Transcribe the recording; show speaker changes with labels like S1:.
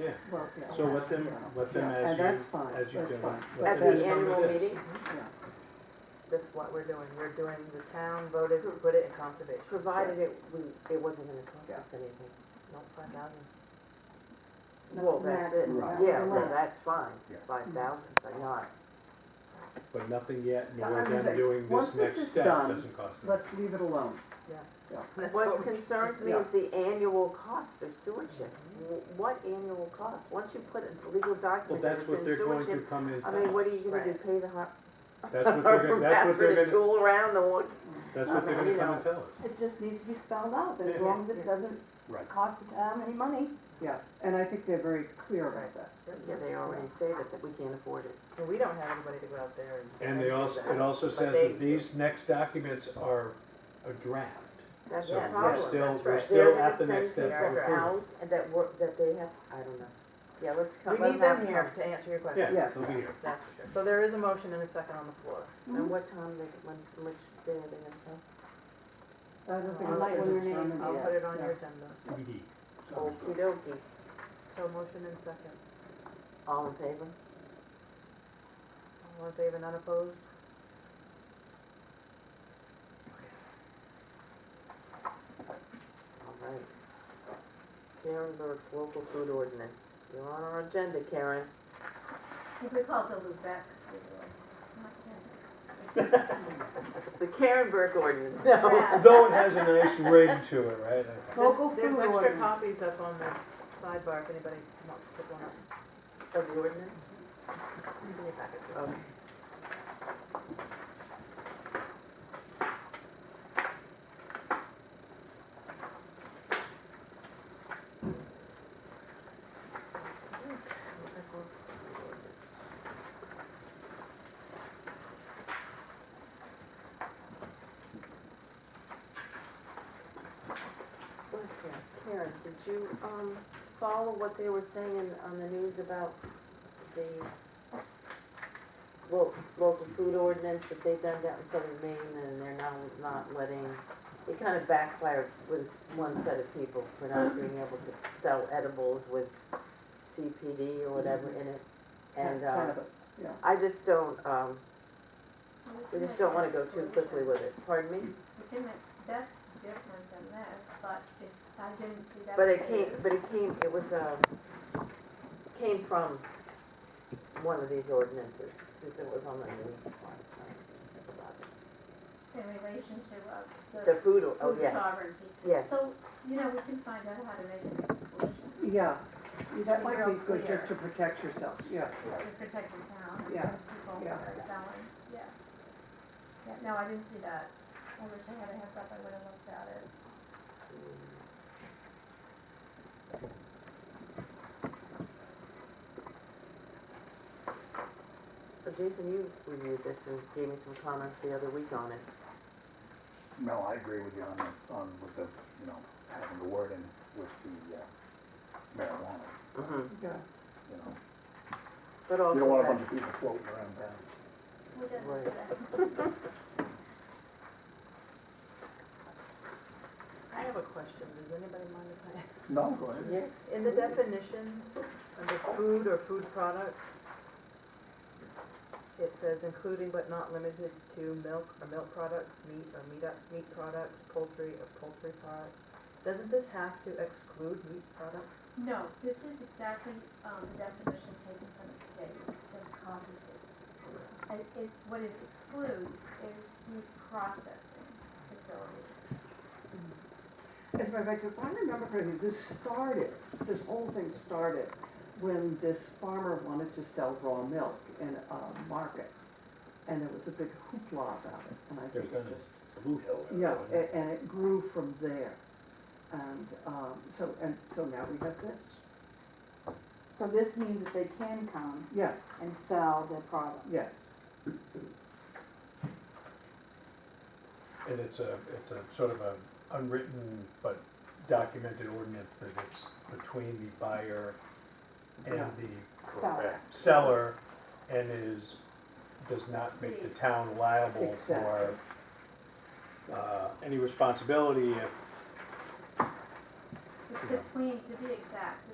S1: Yeah.
S2: Well, yeah.
S1: So let them, let them
S2: Yeah,
S1: as
S2: and
S1: you,
S2: that's fine,
S1: as you
S2: that's
S1: go.
S2: fine.
S1: let
S3: At
S1: them
S3: the
S1: just come to
S3: annual
S1: this.
S3: meeting,
S2: Yeah.
S3: this is what we're doing, we're doing, the town voted to put it in conservation.
S4: Provided it, we, it wasn't gonna cost us anything.
S3: No, five thousand.
S4: Well,
S2: That's
S4: that's it.
S2: maximum, that's
S4: Yeah,
S2: the
S4: well,
S2: max.
S4: that's fine,
S5: Yeah.
S4: five
S1: Mm-hmm.
S4: thousand, but not.
S1: But nothing yet, nor
S2: I'm
S1: them
S2: saying,
S1: doing
S2: once
S1: this
S2: this is
S1: next step
S2: done,
S1: doesn't cost them.
S2: Let's leave it alone.
S3: Yes.
S2: Yeah.
S3: That's what
S4: What
S3: we-
S4: concerns me is the annual cost of stewardship.
S3: Mm-hmm.
S4: Wh- What annual cost? Once you put a legal
S1: Well,
S4: document that
S1: that's
S4: it's
S1: what
S4: in
S1: they're going to
S4: stewardship,
S1: come in,
S4: I mean, what are you gonna do,
S3: Right.
S4: pay the har-
S1: that's what they're
S4: harbor
S1: gonna, that's what
S4: master
S1: they're
S4: to
S1: gonna,
S4: tool around the one?
S1: that's what they're
S4: I
S1: gonna
S4: mean,
S1: come
S4: you
S1: and tell us.
S6: It just needs to be spelled out, that as
S1: Yeah.
S6: long as
S4: Yes,
S6: it doesn't
S1: Right.
S6: cost the town any money.
S2: Yeah, and I think they're very clear about that.
S4: Yeah, they already say that, that we can't afford it.
S3: And we don't have anybody to go out there and.
S1: And they also, it also says
S3: they-
S1: that these next documents are a draft.
S4: That's
S1: So
S4: the
S1: we're
S4: problem.
S1: still,
S3: that's
S1: we're
S3: right.
S1: still at the next step.
S4: They're
S1: of
S4: gonna send people
S1: approval.
S4: out and that work, that they have, I don't know.
S3: Yeah, let's
S4: come-
S3: come, we
S4: let
S3: need
S4: them
S3: them here to answer your question.
S1: Yeah,
S2: Yes.
S1: they'll be here.
S3: That's for sure. So there is a motion and a second on the floor.
S6: Mm-hmm.
S4: And what time they, when, which day are they gonna come?
S2: I don't think
S6: I like
S2: it's
S6: when
S2: been
S6: your name's
S2: determined
S3: I'll
S2: yet.
S3: put it on
S2: Yeah.
S3: your agenda.
S1: TBD.
S4: Okey dokey.
S3: So motion and second.
S4: All in favor?
S3: All in favor, none opposed?
S4: All right. Karen Burke's local food ordinance. You're on our agenda, Karen.
S7: If we call Bill Lubeck,
S4: It's the Karen Burke ordinance. No.
S1: Though it has a nice ring to it, right?
S6: Local food
S3: There's extra
S6: ordinance.
S3: copies up on the sidebar if anybody wants to pick one up.
S4: Of the ordinance?
S3: It's in your packet.
S4: Okay. Okay, Karen, did you, um, follow what they were saying on the news about the lo- local food ordinance that they've done down in southern Maine and they're now not letting, it kind of backfired with one set of people for not being able to sell edibles with CPD or whatever in it. And, uh,
S2: Cannabis, yeah.
S4: I just don't, um, we just don't wanna go too quickly with it, pardon me?
S7: We can make- That's different than this, but if, I didn't see that.
S4: But it came,
S7: page.
S4: but it came, it was, um, came from one of these ordinances, because it was on the news last night. about it.
S7: In relation to, uh,
S4: The
S7: the
S4: food, or- oh,
S7: food
S4: yes,
S7: sovereignty.
S4: yes.
S7: So, you know, we can find out how to make an exclusion
S2: Yeah, that
S7: Be
S2: might
S7: real
S2: be good
S7: clear.
S2: just to protect yourself, yeah.
S7: to protect the town and
S2: Yeah,
S7: the people who
S2: yeah.
S7: are selling, yeah. Yeah, no, I didn't see that. I wish I had a heads up, I would have looked at it.
S4: So Jason, you reviewed this and gave me some comments the other week on it.
S5: No, I agree with you on, the- on, with the, you know, having the wording with the uh, marijuana,
S2: Yeah.
S5: you know.
S4: But also
S5: Mm-hmm. You don't want a
S4: that,
S5: bunch of people floating around town.
S7: We didn't
S4: Right.
S7: do that.
S3: I have a question. Does anybody mind if I ask?
S5: No, go ahead.
S4: yes,
S3: In the definitions under food or food products, it says including but not limited to milk or milk products, meat or meat, meat products, poultry or poultry products. Doesn't this have to exclude meat products?
S7: No, this is exactly, um, the definition taken from the state, as cognitive. And it, what it excludes is meat processing facilities.
S2: As a matter of fact, if I remember correctly, this started, this whole thing started when this farmer wanted to sell raw milk in a market. And there was a big hoopla about it, and I
S1: There's
S2: think
S1: been
S2: it
S1: a blue hill.
S2: just, yeah, a- and it grew from there. And, um, so, and so now we have this.
S6: So this means that they can come
S2: Yes,
S6: and sell their product.
S2: yes,
S1: And it's a, it's a sort of a unwritten but documented ordinance that it's between the buyer and
S2: Yeah.
S1: the
S6: Seller.
S1: seller and is, does not make the town liable for, uh, any responsibility if
S7: It's
S1: Yeah.
S7: between, to be exact,